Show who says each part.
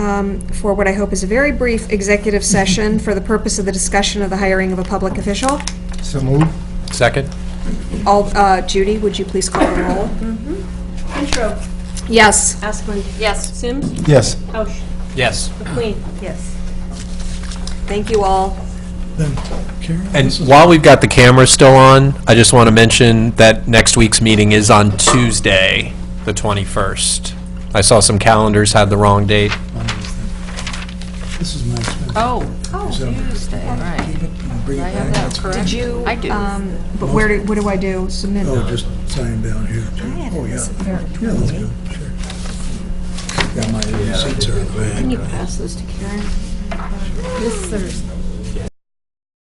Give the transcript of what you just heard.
Speaker 1: um, for what I hope is a very brief executive session for the purpose of the discussion of the hiring of a public official.
Speaker 2: So move.
Speaker 3: Second?
Speaker 1: All, uh, Judy, would you please call the roll?
Speaker 4: Intro,
Speaker 1: Yes.
Speaker 4: Asplund. Yes. Sims.
Speaker 2: Yes.
Speaker 4: House.
Speaker 3: Yes.
Speaker 4: McQueen. Yes.
Speaker 1: Thank you all.
Speaker 2: Then Karen?
Speaker 3: And while we've got the camera still on, I just want to mention that next week's meeting is on Tuesday, the 21st. I saw some calendars had the wrong date.
Speaker 2: This is my expense.
Speaker 5: Oh, Tuesday, right.
Speaker 2: Bring it
Speaker 5: I have
Speaker 2: back.
Speaker 5: that correct? Did
Speaker 1: you,
Speaker 5: I do.
Speaker 1: Um, But where, do- what do I do? Submit?
Speaker 2: Oh, just sign down here. Oh, yeah. Yeah, that's good, sure. Yeah, my receipts are in the bag.
Speaker 4: Pass those to Karen.
Speaker 6: This Thursday,